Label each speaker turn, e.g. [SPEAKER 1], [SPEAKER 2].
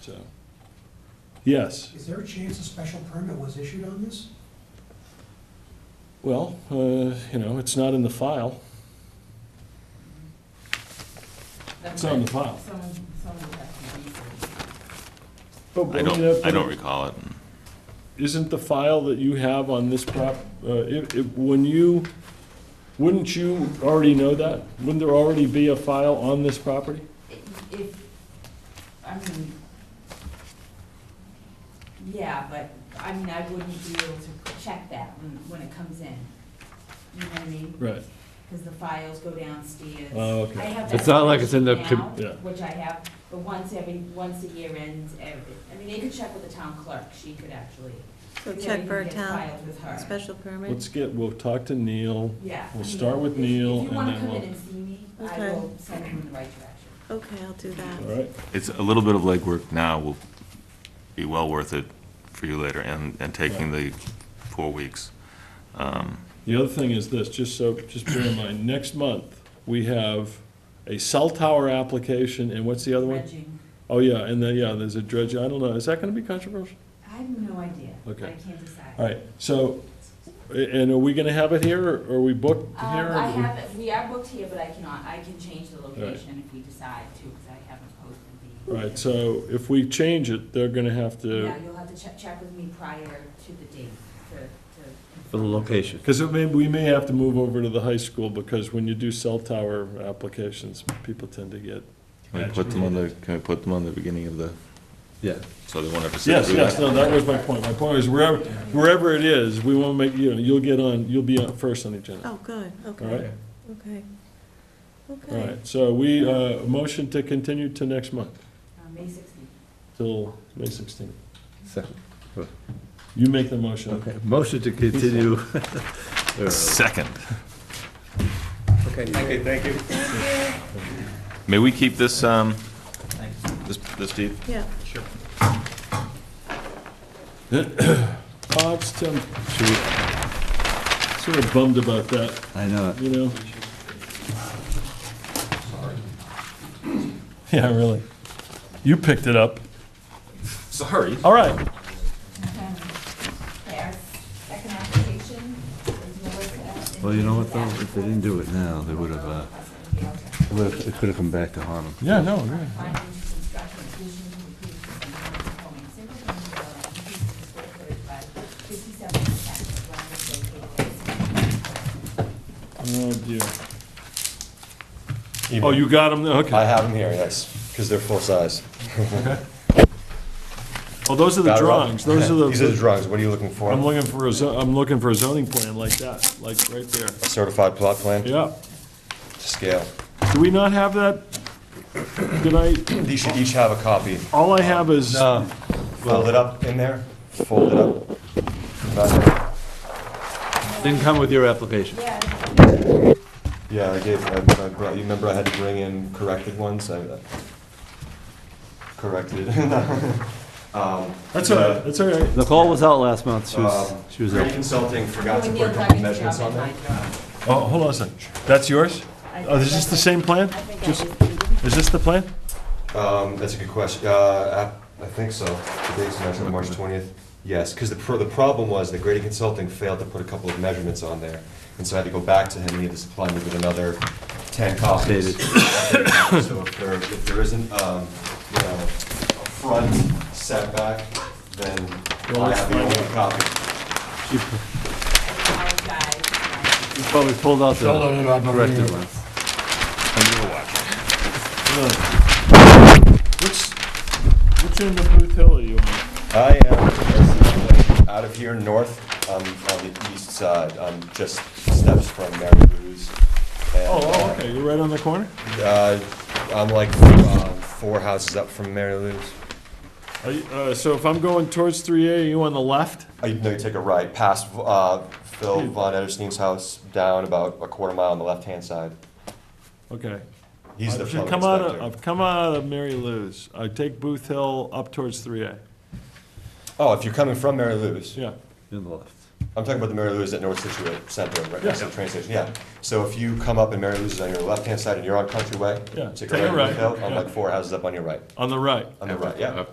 [SPEAKER 1] so. Yes,
[SPEAKER 2] Is there a chance a special permit was issued on this?
[SPEAKER 1] well, uh, you know, it's not in the file. It's on the file.
[SPEAKER 3] Someone, someone would have to research.
[SPEAKER 1] But,
[SPEAKER 4] I
[SPEAKER 1] mean, uh,
[SPEAKER 4] don't, I don't recall it.
[SPEAKER 1] Isn't the file that you have on this prop, uh, it, it, when you, wouldn't you already know that? Wouldn't there already be a file on this property?
[SPEAKER 3] If- If, I mean, yeah, but, I mean, I wouldn't be able to check that when, when it comes in. You know what I mean?
[SPEAKER 1] Right,
[SPEAKER 3] Because the files go downstairs.
[SPEAKER 1] Oh, okay.
[SPEAKER 3] I have
[SPEAKER 5] It's
[SPEAKER 3] that
[SPEAKER 5] not like it's in the
[SPEAKER 3] information
[SPEAKER 5] com-
[SPEAKER 3] now,
[SPEAKER 1] Yeah.
[SPEAKER 3] Which I have, but once every, once a year ends, every, I mean, they could check with the town clerk, she could actually.
[SPEAKER 6] So
[SPEAKER 3] because
[SPEAKER 6] check for a
[SPEAKER 3] everything gets
[SPEAKER 6] town
[SPEAKER 3] filed with her.
[SPEAKER 6] special permit?
[SPEAKER 1] let's get, we'll talk to Neil.
[SPEAKER 3] Yeah. I
[SPEAKER 1] We'll
[SPEAKER 3] mean,
[SPEAKER 1] start with
[SPEAKER 3] if-
[SPEAKER 1] Neil
[SPEAKER 3] If
[SPEAKER 1] and
[SPEAKER 3] you wanna
[SPEAKER 1] then
[SPEAKER 3] come in
[SPEAKER 1] we'll-
[SPEAKER 3] and see me, I
[SPEAKER 6] Okay.
[SPEAKER 3] will send you in the right direction.
[SPEAKER 6] Okay, I'll do that.
[SPEAKER 1] All right,
[SPEAKER 4] It's a little bit of legwork now will be well worth it for you later and, and taking the four weeks. Um,
[SPEAKER 1] the other thing is this, just so, just bear in mind, next month, we have a cell tower application, and what's the other one?
[SPEAKER 3] Dredging.
[SPEAKER 1] Oh, yeah, and then, yeah, there's a dredge, I don't know, is that gonna be controversial?
[SPEAKER 3] I have no idea.
[SPEAKER 1] Okay.
[SPEAKER 3] I can't decide.
[SPEAKER 1] All right, so, a- and are we gonna have it here, or are we booked here?
[SPEAKER 3] Um, I have, it- we are booked here, but I cannot, I can change the location if we decide to, because I haven't posted the.
[SPEAKER 1] All right, so if we change it, they're gonna have to,
[SPEAKER 3] Yeah, you'll have to check, check with me prior to the date to, to.
[SPEAKER 5] For the location.
[SPEAKER 1] because it may, we may have to move over to the high school, because when you do cell tower applications, people tend to get.
[SPEAKER 4] Can we put them on the, can we put them on the beginning of the,
[SPEAKER 5] Yeah.
[SPEAKER 4] so they won't have to sit
[SPEAKER 1] Yes,
[SPEAKER 4] through
[SPEAKER 1] yes,
[SPEAKER 4] that?
[SPEAKER 1] no, that was my point, my point is wherever, wherever it is, we wanna make, you know, you'll get on, you'll be on first on the agenda,
[SPEAKER 6] Oh, good,
[SPEAKER 1] all
[SPEAKER 6] okay,
[SPEAKER 1] right?
[SPEAKER 6] okay.
[SPEAKER 1] All
[SPEAKER 6] Okay,
[SPEAKER 1] right, so we, uh, motion to continue to next month,
[SPEAKER 3] Uh, May sixteenth.
[SPEAKER 1] till May sixteenth.
[SPEAKER 5] Second.
[SPEAKER 1] You make the motion.
[SPEAKER 5] Okay, motion to continue.
[SPEAKER 4] Second.
[SPEAKER 5] Okay.
[SPEAKER 4] May we keep this, um, this, this deep?
[SPEAKER 6] yeah.
[SPEAKER 1] Bob's Tim, sort of bummed about that,
[SPEAKER 5] I know.
[SPEAKER 1] you know? Yeah, really. You picked it up.
[SPEAKER 4] Sorry.
[SPEAKER 1] All right.
[SPEAKER 3] There's second application. There's Melissa and
[SPEAKER 5] Well, you know what,
[SPEAKER 3] Melissa.
[SPEAKER 5] though, if they didn't do it now, they would have, uh, would've- it could have come back to harm them.
[SPEAKER 1] Yeah, no, yeah. Oh, dear. Oh, you got them,
[SPEAKER 7] I
[SPEAKER 1] okay.
[SPEAKER 7] have them here, yes, because they're full size.
[SPEAKER 1] Oh, those are the
[SPEAKER 7] Got it all?
[SPEAKER 1] drawings, those are
[SPEAKER 7] These are the
[SPEAKER 1] the,
[SPEAKER 7] drawings, what are you looking for?
[SPEAKER 1] I'm looking for a, zo- I'm looking for a zoning plan like that, like right there.
[SPEAKER 7] A certified plot plan to
[SPEAKER 1] Yeah.
[SPEAKER 7] scale.
[SPEAKER 1] Do we not have that? Did I,
[SPEAKER 7] These should each have a copy.
[SPEAKER 1] all I have is,
[SPEAKER 7] No, Fold it up in there, fold it up. Not-
[SPEAKER 5] Didn't come with your application.
[SPEAKER 7] Yeah, I gave, I I brought, you remember I had to bring in corrected ones, I uh, corrected. Um,
[SPEAKER 1] that's all right,
[SPEAKER 7] the,
[SPEAKER 1] that's all right.
[SPEAKER 5] Nicole was out last month, she was,
[SPEAKER 7] um,
[SPEAKER 5] she was
[SPEAKER 7] Grady
[SPEAKER 5] out.
[SPEAKER 7] Consulting forgot to put a couple measurements on there.
[SPEAKER 1] Oh, hold on a second. That's yours? Oh, is this the same plan? Just- Is this the plan?
[SPEAKER 7] Um, that's a good question. Uh, I, I think so. The date's mentioned March twentieth. Yes, because the, pro- the problem was that Grady Consulting failed to put a couple of measurements on there. And so I had to go back to him, he had to supply me with another ten copies. So if there, if there isn't, um, you know, a front setback, then
[SPEAKER 1] Well,
[SPEAKER 7] I
[SPEAKER 1] let's
[SPEAKER 7] have the
[SPEAKER 1] find
[SPEAKER 7] only copy.
[SPEAKER 5] You Probably pulled out the corrected one.
[SPEAKER 1] What's, what's in the Booth Hill are you on?
[SPEAKER 7] I am out of here north, um, on the east side, um, just steps from Mary Lou's. And,
[SPEAKER 1] Oh,
[SPEAKER 7] uh,
[SPEAKER 1] oh, okay, you're right on the corner?
[SPEAKER 7] Uh, I'm like uh, four houses up from Mary Lou's.
[SPEAKER 1] Are you, uh, so if I'm going towards three A, are you on the left?
[SPEAKER 7] I know you take a right past uh, Phil Von Edersteen's house, down about a quarter mile on the left-hand side.
[SPEAKER 1] Okay.
[SPEAKER 7] He's the
[SPEAKER 1] I should Uh,
[SPEAKER 7] plumbing
[SPEAKER 1] come out of-
[SPEAKER 7] inspector.
[SPEAKER 1] I've come out of Mary Lou's. I take Booth Hill up towards three A.
[SPEAKER 7] Oh, if you're coming from Mary Lou's,
[SPEAKER 1] Yeah.
[SPEAKER 5] In the left.
[SPEAKER 7] I'm talking about the Mary Lou's at North Situate Center, right next to the
[SPEAKER 1] Yeah.
[SPEAKER 7] train station, yeah. So if you come up and Mary Lou's is on your left-hand side and you're on Country Way,
[SPEAKER 1] Yeah,
[SPEAKER 7] take
[SPEAKER 1] take a
[SPEAKER 7] a right,
[SPEAKER 1] right,
[SPEAKER 7] Hill, I'm
[SPEAKER 1] yeah.
[SPEAKER 7] like four houses up on your right,
[SPEAKER 1] On the right.
[SPEAKER 7] on the right, yeah.